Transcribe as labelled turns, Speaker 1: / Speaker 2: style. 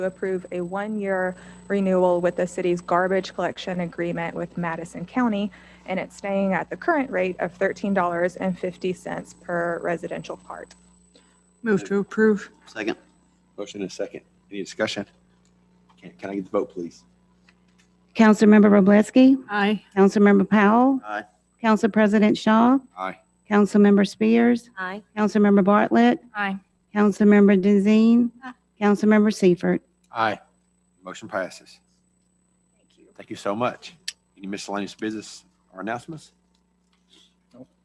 Speaker 1: to approve a one-year renewal with the city's garbage collection agreement with Madison County, and it's staying at the current rate of $13.50 per residential cart.
Speaker 2: Move to approve.
Speaker 3: Second.
Speaker 4: Motion and second. Any discussion? Can, can I get the vote, please?
Speaker 5: Councilmember Roblesky,
Speaker 2: Aye.
Speaker 5: Councilmember Powell,
Speaker 3: Aye.
Speaker 5: Council President Shaw,
Speaker 4: Aye.
Speaker 5: Councilmember Spears,
Speaker 6: Aye.
Speaker 5: Councilmember Bartlett,
Speaker 1: Aye.
Speaker 5: Councilmember Denzine, Councilmember Seifert.
Speaker 4: Aye. Motion passes. Thank you. Thank you so much. Any miscellaneous business or announcements?